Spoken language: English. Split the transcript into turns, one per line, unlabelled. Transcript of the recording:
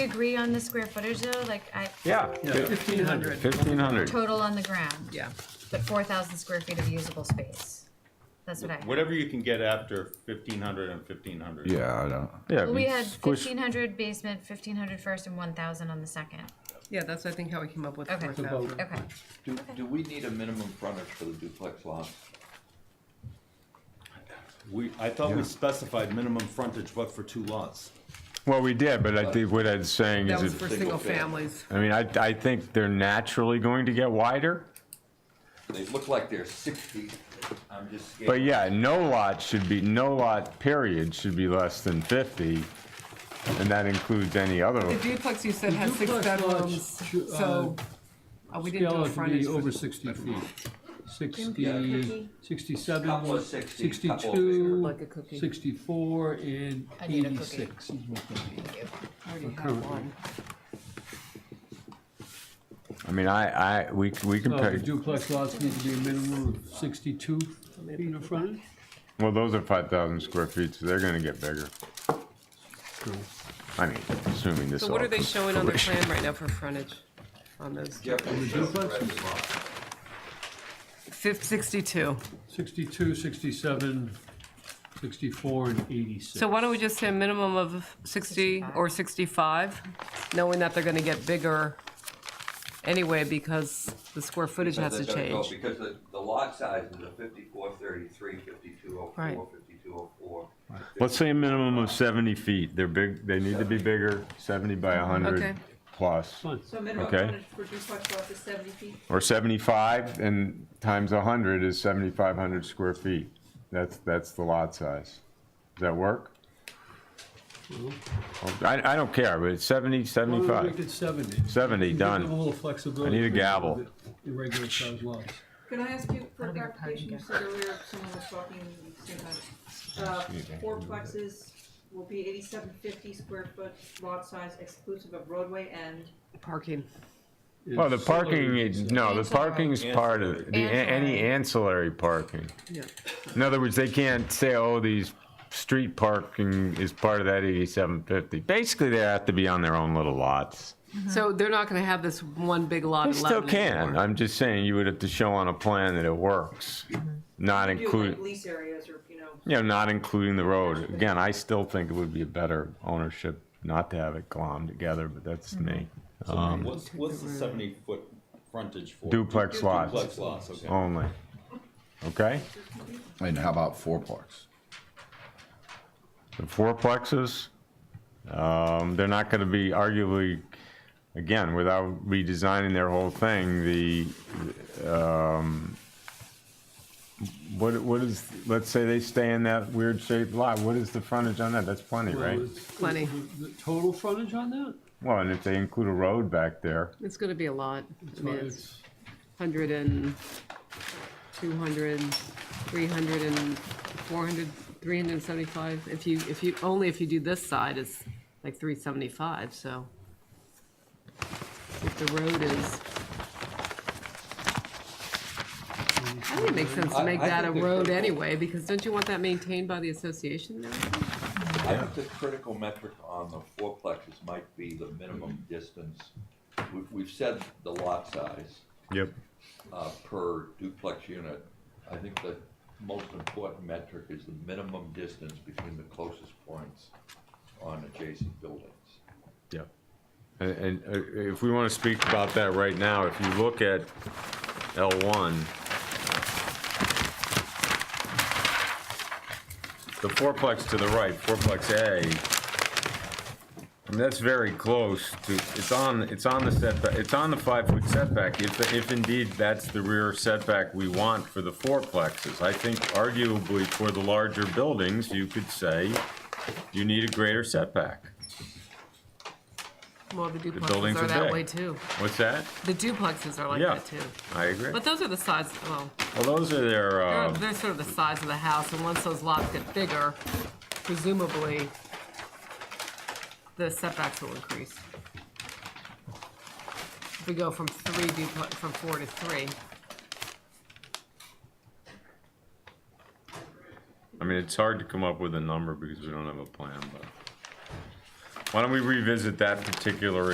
agree on the square footage though, like I,
Yeah.
Fifteen hundred.
Fifteen hundred.
total on the ground,
Yeah.
but four thousand square feet of usable space. That's what I, well,
Whatever you can get after 1500 and 1500.
Yeah, I don't,
Yeah.
we
we
had
squish-
fifteen hundred basement, fifteen hundred first and one thousand on the second.
Yeah, that's, I think, how we came up with the
Okay.
four thousand.
Okay,
Do, do we need a minimum frontage for the duplex lots?
We, I thought
Yeah.
we specified minimum frontage, but for two lots.
Well, we did, but I think what I'm saying
That was
is,
for
it-
single
Single
families.
I mean, I, I think they're naturally going to get wider.
They look like they're sixty, I'm just scared.
But yeah, no lot should be, no lot period should be less than fifty. And that includes any
The
other,
duplex you said has six
Duplex lots
bedrooms,
should, uh,
so uh, we didn't do a
Scale it to be
frontage.
over
for-
sixty feet.
cookie.
60, 67,
Couple of 60, couple of
62,
Like a cookie.
64, and
I need a cookie.
eighty-six is what they need.
I already have one.
I mean, I, I, we, we can
So Oh, the
pay,
duplex lots need to be a minimum of sixty-two feet in front.
well, those are five thousand square feet, so they're gonna get bigger. I mean, assuming this all.
So what are they
comes to
showing on their
fruition.
plan right now for frontage on those?
Jeffrey showed the rest of the lot.
Fif- sixty-two.
62, 67, 64, and eighty-six.
So why don't we just say a minimum of sixty or sixty-five, knowing that they're gonna get bigger anyway because the square footage has to
Because they're gonna go-
change.
Because the, the lot sizes are fifty-four thirty-three, fifty-two oh
Right.
four, fifty-two oh four.
Let's say a minimum of seventy feet. They're big, they need to be bigger, seventy by
Okay.
hundred plus,
Fine.
So minimum
Okay.
frontage for duplex lots is seventy feet.
or seventy-five and times hundred is seventy-five hundred square feet. That's, that's the lot size. Does that work? I, I don't care, but it's seventy,
Why don't we Make
seventy-five,
it seventy.
seventy,
Give them a
done.
little flexibility.
I need a gavel.
with the Irregular sized lots.
Can I ask you for
I don't think I
clarification, you
can
said earlier, someone was talking, at the same time. Uh, fourplexes will be eighty-seven fifty square foot lot size exclusive of roadway and
Parking.
Well, the parking, is- no, the
Ancillary.
parking's part of, it. the, a- any ancillary parking.
Yeah.
In other words, they can't say, oh, these street parking is part of that eighty-seven fifty. Basically, they have to be on their own little lots.
So they're not gonna have this one big lot.
They
in
still
Lebanon
can.
anymore.
I'm just saying you would have to show on a plan that it works, not
do like
including,
lease areas or, you know,
you know, not including the road. Again, I still think it would be a better ownership not to have it glommed together, but that's me. Um,
what's what's the 70 foot frontage for?
Duplex lots. Oh,
Duplex lots, okay.
Only. Okay?
and how about fourplex?
The fourplexes, um, they're not gonna be arguably, again, without redesigning their whole thing, the, um, what, what is, let's say they stay in that weird shaped lot, what is the frontage on that? That's plenty, right?
Plenty.
The total frontage on that?
Well, and if they include a road back there,
It's gonna be a lot. I
So
mean, it's
it's-
hundred and, two hundred, three hundred and, four hundred, three hundred and seventy-five. If you, if you, only if you do this side, it's like three seventy-five, so. If the road is. I think it makes sense to
I-
make
I
that a
think there's
road
no-
anyway, because don't you want that maintained by the association now?
I think the critical metric on the fourplexes might be the minimum distance. We've, we've said the lot size,
yep,
uh, per duplex unit. I think the most important metric is the minimum distance between the closest points on adjacent buildings.
yep. And, and uh, if we wanna speak about that right now, if you look at L one, the fourplex to the right, fourplex A, and that's very close to, it's on, it's on the setback, it's on the five-foot setback, if, if indeed that's the rear setback we want for the fourplexes. I think arguably for the larger buildings, you could say you need a greater setback.
Well, the duplexes
buildings
are
are
that
big.
way too.
What's that?
The duplexes are like
Yeah,
that too.
I agree.
But those are the size, well,
Well, those are their,
They're,
uh,
they're sort of the size of the house, and once those lots get bigger, presumably, the setbacks will increase. If we go from three duplex, from four to three,
I mean, it's hard to come up with a number because we don't have a plan, but. Why don't we revisit that particular